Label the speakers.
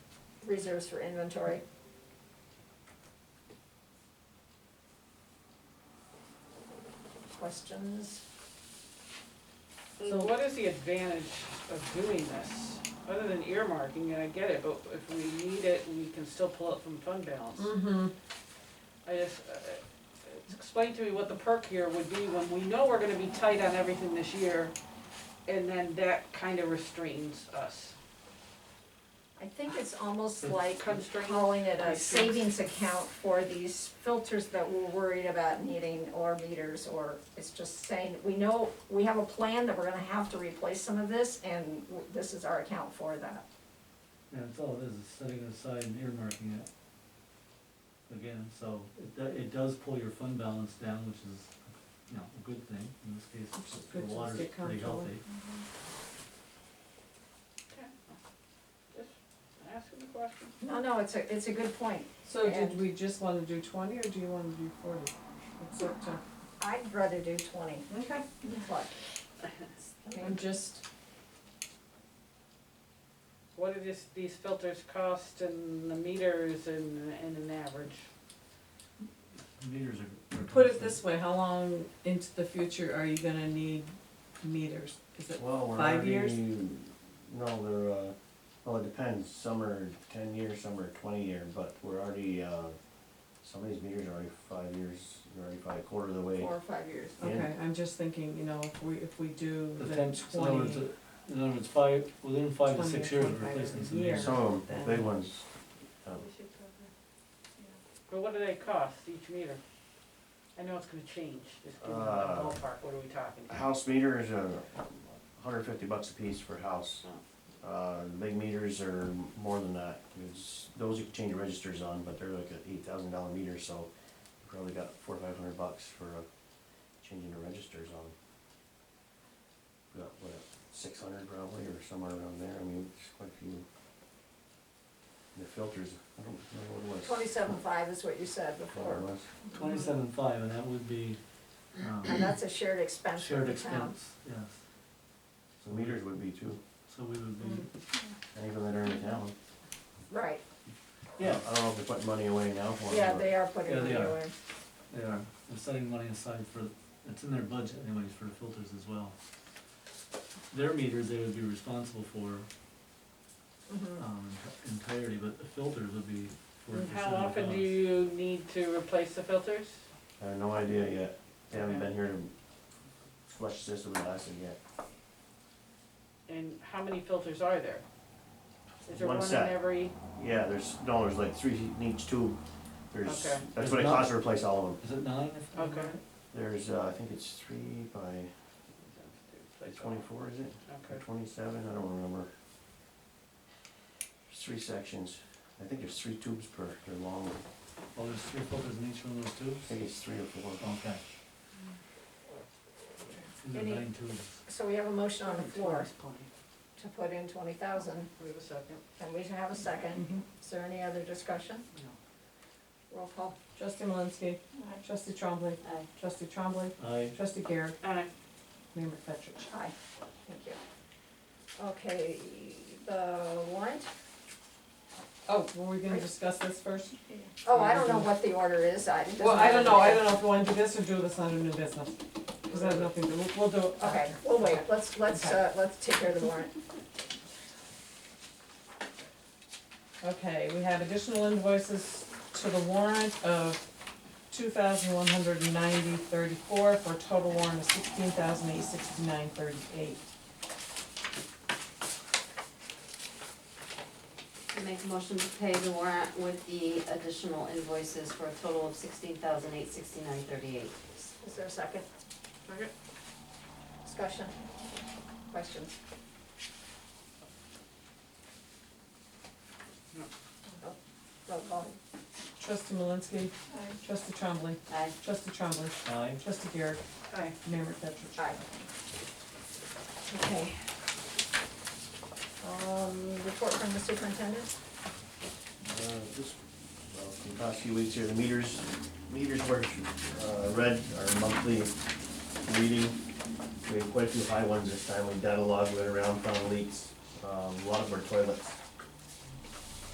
Speaker 1: reserves for inventory. Questions?
Speaker 2: So what is the advantage of doing this, other than earmarking, and I get it, but if we need it, we can still pull it from fund balance.
Speaker 1: Mm-hmm.
Speaker 2: I just, uh, uh, explain to me what the perk here would be when we know we're gonna be tight on everything this year, and then that kinda restrains us.
Speaker 1: I think it's almost like
Speaker 2: Constraint.
Speaker 1: calling it a
Speaker 2: Constraint.
Speaker 1: savings account for these filters that we're worried about needing or meters or it's just saying, we know, we have a plan that we're gonna have to replace some of this and w- this is our account for that.
Speaker 3: Yeah, that's all it is, is setting it aside and earmarking it. Again, so it, do- it does pull your fund balance down, which is, you know, a good thing, in this
Speaker 4: Which is
Speaker 3: case,
Speaker 4: good to
Speaker 3: the water's
Speaker 4: stay
Speaker 3: pretty
Speaker 4: comfortable.
Speaker 3: healthy.
Speaker 2: Just asking the question.
Speaker 1: No, no, it's a, it's a good point.
Speaker 4: So
Speaker 1: And-
Speaker 4: did we just wanna do twenty or do you wanna do forty? It's up to,
Speaker 1: I'd rather do twenty,
Speaker 4: okay,
Speaker 1: but, I
Speaker 4: I'm
Speaker 1: mean,
Speaker 4: just,
Speaker 2: What do these, these filters cost and the meters and, and an average?
Speaker 3: Meters are. are
Speaker 4: put it
Speaker 3: constant.
Speaker 4: this way, how long into the future are you gonna need meters? Is it,
Speaker 5: Well, we're
Speaker 4: Five years?
Speaker 5: already, no, they're, uh, well, it depends, some are ten years, some are twenty year, but we're already, uh, some of these meters are already five years, they're already probably a quarter of the way.
Speaker 1: four or five years.
Speaker 5: Yeah.
Speaker 4: okay, I'm just thinking, you know, if we, if we do
Speaker 3: The
Speaker 4: the
Speaker 3: ten-
Speaker 4: twenty.
Speaker 3: so in other words, uh, In other words, five, within five to
Speaker 4: 20 or
Speaker 3: six years, we're
Speaker 4: 25
Speaker 3: replacing
Speaker 4: years a
Speaker 3: some
Speaker 4: year.
Speaker 3: meters.
Speaker 5: Some of them, the big
Speaker 4: then-
Speaker 5: ones, um,
Speaker 2: But what do they cost, each meter? I know it's gonna change, just give me a
Speaker 5: Uh,
Speaker 2: ballpark, what are we talking?
Speaker 5: a house meter is a hundred fifty bucks a piece for a house. Uh, the big meters are more than that, it's, those you can change registers on, but they're like an eight thousand dollar meter, so you probably got four, or five hundred bucks for uh, changing the registers on. Got what, six hundred probably, or somewhere around there, I mean, it's quite a few. The filters, I don't remember what it was.
Speaker 1: Twenty-seven five is what you said
Speaker 5: Whatever
Speaker 1: before,
Speaker 5: it was.
Speaker 3: Twenty-seven five, and that would be,
Speaker 1: and
Speaker 3: um,
Speaker 1: that's a shared expense for
Speaker 3: shared
Speaker 1: the town.
Speaker 3: expense, yes.
Speaker 5: So meters would be too,
Speaker 3: So we would be,
Speaker 4: Mm.
Speaker 5: and even that are in the town.
Speaker 1: Mm-hmm. Right,
Speaker 3: yeah,
Speaker 5: I don't know if they're putting money away now for it.
Speaker 1: yeah,
Speaker 5: but-
Speaker 1: they are putting
Speaker 3: Yeah,
Speaker 1: it
Speaker 3: they are.
Speaker 1: away.
Speaker 3: they are, they're setting money aside for, it's in their budget anyways for filters as well. Their meters, they would be responsible for,
Speaker 1: Mhm.
Speaker 3: um, entirety, but the filters would be forty
Speaker 2: And
Speaker 3: percent
Speaker 2: How often do you need to replace the filters?
Speaker 5: I have no idea yet. They haven't been here to flush the system with acid yet.
Speaker 2: And how many filters are there? Is there
Speaker 5: One
Speaker 2: one in
Speaker 5: set.
Speaker 2: every,
Speaker 5: Yeah, there's, no, there's like three in each tube. There's,
Speaker 2: Okay.
Speaker 5: that's what it costs to replace all of them.
Speaker 3: Is it nine? if I'm
Speaker 2: Okay.
Speaker 3: right?
Speaker 5: There's, uh, I think it's three by twenty-four, is it? Or
Speaker 2: okay,
Speaker 5: twenty-seven, I don't remember. There's three sections. I think there's three tubes per, they're long.
Speaker 3: Oh, there's three filters in each one of those
Speaker 5: I
Speaker 3: tubes?
Speaker 5: think it's three or four.
Speaker 3: Okay. These are
Speaker 1: Any-
Speaker 3: nine tubes.
Speaker 1: So we have a motion on the floor
Speaker 2: Wait
Speaker 1: to put in twenty thousand,
Speaker 2: a second,
Speaker 1: and we have a second.
Speaker 4: Mhm.
Speaker 1: Is there any other discussion?
Speaker 2: no.
Speaker 1: Roll call.
Speaker 4: Trustee Malinsky. Trustee Trombley.
Speaker 1: Aye.
Speaker 4: Trustee Trombley.
Speaker 3: I,
Speaker 4: Trustee Garrett.
Speaker 2: Alright,
Speaker 4: Mayor McFetrich.
Speaker 1: Aye, thank you. Okay, the warrant?
Speaker 4: Oh, were we gonna discuss this first?
Speaker 1: Oh, I don't know what the order is, I. it doesn't
Speaker 4: Well, I don't know, I
Speaker 1: matter.
Speaker 4: don't know if we wanna do this or do this under new business. Cause I have nothing to, we'll, we'll do it.
Speaker 1: Okay, we'll wait, let's, let's, uh, let's take care of the warrant.
Speaker 4: Okay, we have additional invoices to the warrant of two thousand one hundred and ninety thirty-four for a total warrant of sixteen thousand eight sixty-nine thirty-eight.
Speaker 6: Make a motion to pay the warrant with the additional invoices for a total of sixteen thousand eight sixty-nine thirty-eight.
Speaker 1: Is there a second?
Speaker 2: Second.
Speaker 1: Discussion? Questions?
Speaker 2: No.
Speaker 1: Oh, Roll call.
Speaker 4: Trustee Malinsky. Trustee Trombley.
Speaker 6: Aye.
Speaker 4: Trustee Trombley.
Speaker 3: I,
Speaker 4: Trustee Garrett.
Speaker 2: aye,
Speaker 4: Mayor McFetrich.
Speaker 1: Aye. Okay. Um, report from the superintendent?
Speaker 5: Uh, Just, well, for the past few weeks here, the meters, meters were, uh, read our monthly reading. We had quite a few high ones this time, we data logged, went around, found leaks, um, a lot of our toilets.